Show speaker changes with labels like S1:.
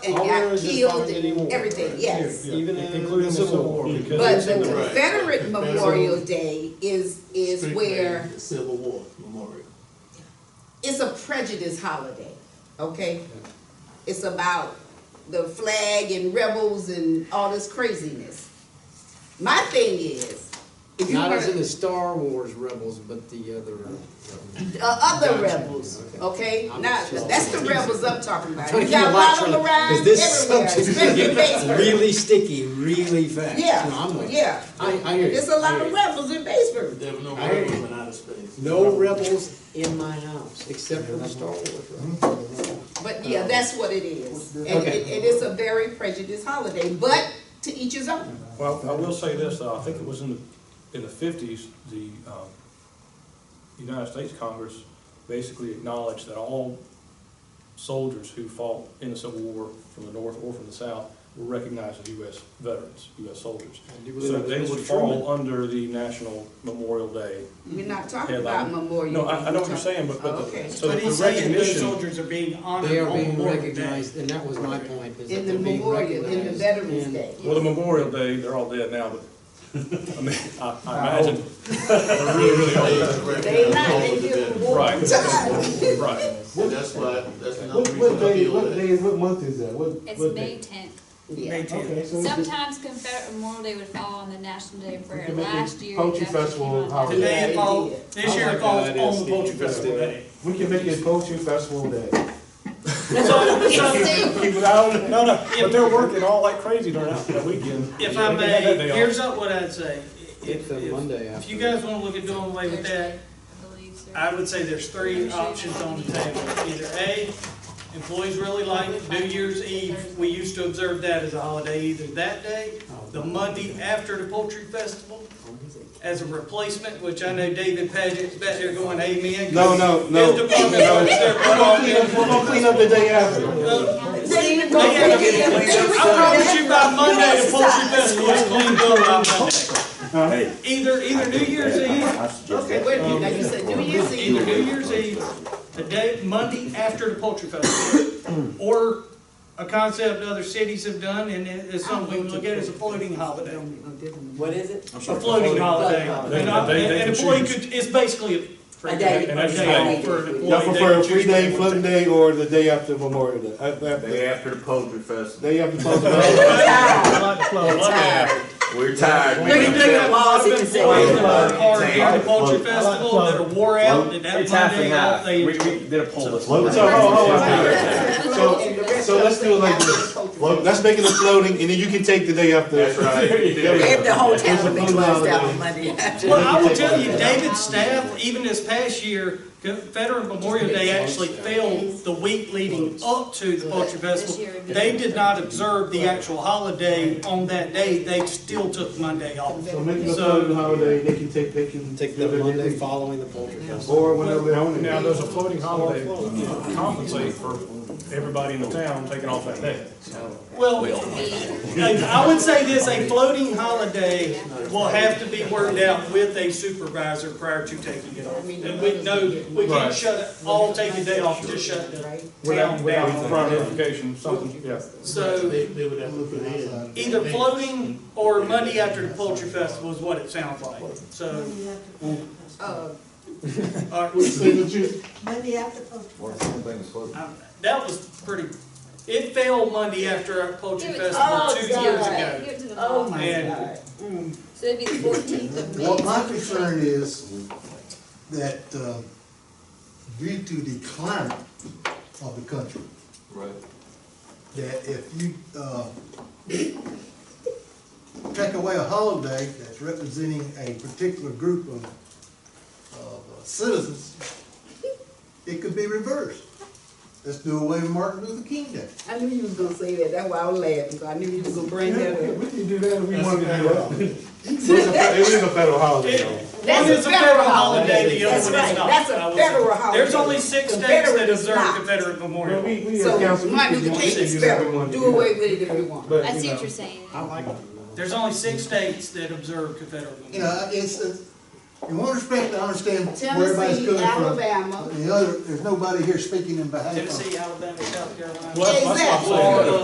S1: and
S2: All
S1: got
S2: areas is
S1: killed
S2: bombed
S1: and
S2: anymore,
S1: everything,
S2: right?
S1: yes.
S3: Yeah,
S2: Even in
S3: including
S2: the Civil War, because
S1: But
S2: it's in
S1: the
S2: the-
S1: Confederate
S4: Right.
S1: Memorial Day is, is
S4: Strictly
S1: where,
S4: Civil War Memorial.
S1: it's a prejudice holiday, okay? It's about the flag and rebels and all this craziness. My thing is, if you
S5: Not as in
S1: wanna-
S5: the Star Wars Rebels, but the other. uh,
S1: uh, other rebels, okay?
S5: I'm
S1: Now,
S5: sure.
S1: that's the rebels I'm talking about.
S5: Trying
S1: You
S5: to keep
S1: got
S5: a
S1: a
S5: lot
S1: lot of
S5: trying to-
S1: them around
S5: 'cause this
S1: everywhere,
S5: subject is
S1: especially
S5: getting
S1: Batesburg.
S5: Really sticky, really fast. No, I'm
S1: Yeah,
S5: with you.
S1: yeah.
S5: I, I hear you.
S1: There's a
S5: I
S1: lot
S5: hear
S1: of
S5: you.
S1: rebels in Batesburg.
S4: There were no
S5: I hear you.
S4: rebels in outer space.
S5: No rebels in my house, except for the Star Wars rebels.
S1: But yeah, that's what it is. And
S5: Um, Okay.
S1: it, it is a very prejudiced holiday, but to each his own.
S3: Well, I will say this, though, I think it was in the, in the fifties, the, um, United States Congress basically acknowledged that all soldiers who fought in the Civil War from the North or from the South were recognized as U.S. veterans, U.S. soldiers.
S5: I do believe
S3: So
S5: that
S3: they
S5: was
S3: would
S5: Mr. Truman.
S3: fall under the National Memorial Day.
S1: We're not talking
S3: headline.
S1: about Memorial.
S3: No,
S1: Day.
S3: I, I know what
S1: We're
S3: you're saying, but,
S1: Oh,
S3: but,
S1: okay.
S3: the- so
S6: But
S3: the
S6: he's saying those
S3: recognition,
S6: soldiers are being honored
S5: They are
S6: on
S5: being
S6: Memorial Day.
S5: recognized, and that was my point, is that
S1: In the
S5: they're being
S1: Memorial,
S5: recognized.
S1: in the Veterans
S5: and-
S1: Day.
S3: well, the Memorial Day, they're all dead now, but, I mean, I, I imagine, they're really, really old.
S1: They not, they give them war
S3: Right.
S1: time.
S3: Right.
S4: And that's why, that's another
S7: What, what
S4: reason I
S7: day,
S4: feel
S7: what
S4: that.
S7: day, what month is that? What,
S8: It's
S7: what
S8: May
S7: day?
S8: tenth.
S1: Yeah.
S6: May
S7: Okay,
S6: 10th.
S7: so it's just,
S8: Sometimes Confederate Memorial Day would fall on the National Day of Prayer.
S7: can make it
S8: Last year.
S7: Poetry
S8: it actually came
S7: Festival
S8: on-
S7: holiday.
S1: Yeah,
S6: Today
S1: they
S6: it falls,
S1: did.
S6: this year
S5: I
S6: it
S5: like
S6: falls
S5: that idea,
S6: on the
S5: Steve.
S6: Poultry Festival Day.
S7: we can make it poetry festival day.
S3: No, no, but they're working all like crazy during that weekend.
S6: If I
S3: They got that
S6: may,
S3: day off.
S6: here's up what I'd say.
S5: It's
S6: If,
S5: a
S6: if,
S5: Monday
S6: if
S5: after.
S6: you guys wanna look at doing away with that,
S8: Thursday, I believe, sir.
S6: I would say there's three options on the table. Either A, employees really like New Year's Eve, we used to observe that as a holiday, either that day, the Monday after the poultry festival, as a replacement, which I know David Paget's back there going amen.
S7: No, no, no.
S6: His department,
S7: No.
S6: works there,
S7: We're
S6: but
S7: gonna clean up, we're gonna clean up the day after.
S1: They even go
S6: They
S1: there.
S6: have to get it cleaned up. I promise you by Monday, the poultry festival is cleaned up by Monday. Either, either New Year's Eve,
S1: Okay, wait a minute, now you said New Year's Eve.
S6: either New Year's Eve, the day, Monday after the poultry festival, or a concept other cities have done, and it- it's something we can look at as a floating holiday.
S9: What is it?
S6: A floating holiday. And I-
S3: They- they can
S6: an employee
S3: choose.
S6: could, it's basically a free
S9: A
S6: day.
S9: day.
S3: And that's
S6: A
S3: the
S6: day
S3: day.
S6: for an employee.
S7: Y'all prefer a
S6: They can choose
S7: free day,
S6: what they want.
S7: floating day, or the day after Memorial Day? Uh,
S10: Day
S7: after-
S10: after the poetry festival.
S7: Day after Memorial.
S10: We're tired,
S6: We can
S10: man.
S6: do that while I've been playing
S9: uh,
S6: the hard at the Poultry Festival that are wore out and that Monday off, they
S3: did a poll this
S7: So, oh, oh, so, so let's do it like this. Let's make it a floating, and then you can take the day after.
S10: That's right.
S9: If the whole town would be
S7: It's a
S9: closed out
S7: holiday.
S9: on Monday after.
S6: Well, I will tell you, David's staff, even this past year, Veteran Memorial Day actually failed the week leading up to the Poultry Festival. They did not observe the actual holiday on that day, they still took Monday off.
S7: So make it a
S6: So-
S7: floating holiday, they can take, they can.
S5: Take
S7: do
S5: the
S7: their
S5: Monday
S7: thing.
S5: following the poultry festival.
S7: Or whenever they own
S3: Now,
S7: it.
S3: there's a floating holiday to compensate for everybody in the town taking off that day.
S6: Well, I I would say this, a floating holiday will have to be worked out with a supervisor prior to taking it off. And we know, we can't shut, it all take a day off, just shut the
S3: Without,
S6: town
S3: without
S6: down.
S3: prior notification, something, yeah.
S6: So
S4: They, they would have to look ahead.
S6: either floating or Monday after the poultry festival is what it sounds like. So, uh,
S1: Uh,
S6: all right,
S7: See what you-
S9: Monday after post.
S6: I'm- Uh, that was pretty, it failed Monday after our poultry
S8: It was-
S6: festival
S1: Oh,
S6: two
S1: God.
S6: years ago.
S8: Give it to the
S1: Oh,
S8: mom.
S1: my
S6: And
S1: God.
S8: So it'd be the fourteenth of May.
S11: Well, my concern is that uh, due to the climate of the country,
S4: Right.
S11: that if you uh, take away a holiday that's representing a particular group of of citizens, it could be reversed. Let's do away with Martin Luther King Day.
S1: I knew you was gonna say that, that's why I was laughing, because I knew you was gonna bring
S7: Yeah,
S1: that
S7: we-
S1: up.
S7: we can do that if we
S6: That's
S7: want to
S6: a
S7: do that. It is a fe- it is a federal holiday
S6: it,
S7: though.
S1: That's
S6: one
S1: a
S6: is a federal
S1: federal
S6: holiday, the
S1: That's
S6: other one is
S1: right,
S6: not.
S1: that's
S6: I
S1: a
S6: will say.
S1: federal holiday.
S6: There's only six states
S1: Confederate
S6: that
S1: is
S6: observe
S1: not.
S6: Confederate Memorial.
S7: But we, we
S1: So
S7: as council, we
S1: Martin
S7: can
S1: Luther
S7: do
S1: King is
S7: that if we
S1: federal,
S7: want to.
S1: do away with it if you want.
S7: But,
S8: I
S7: you
S8: see
S7: know,
S8: what you're saying.
S6: There's only six states that observe Confederate
S11: You
S6: Memorial.
S11: know, Uh, it's, it's- in one respect, I understand where everybody's
S1: Tennessee,
S11: coming from.
S1: Alabama.
S11: But The other, there's nobody here speaking in behalf of.
S6: Tennessee, Alabama, South Carolina.
S3: Well, that's what I'm saying.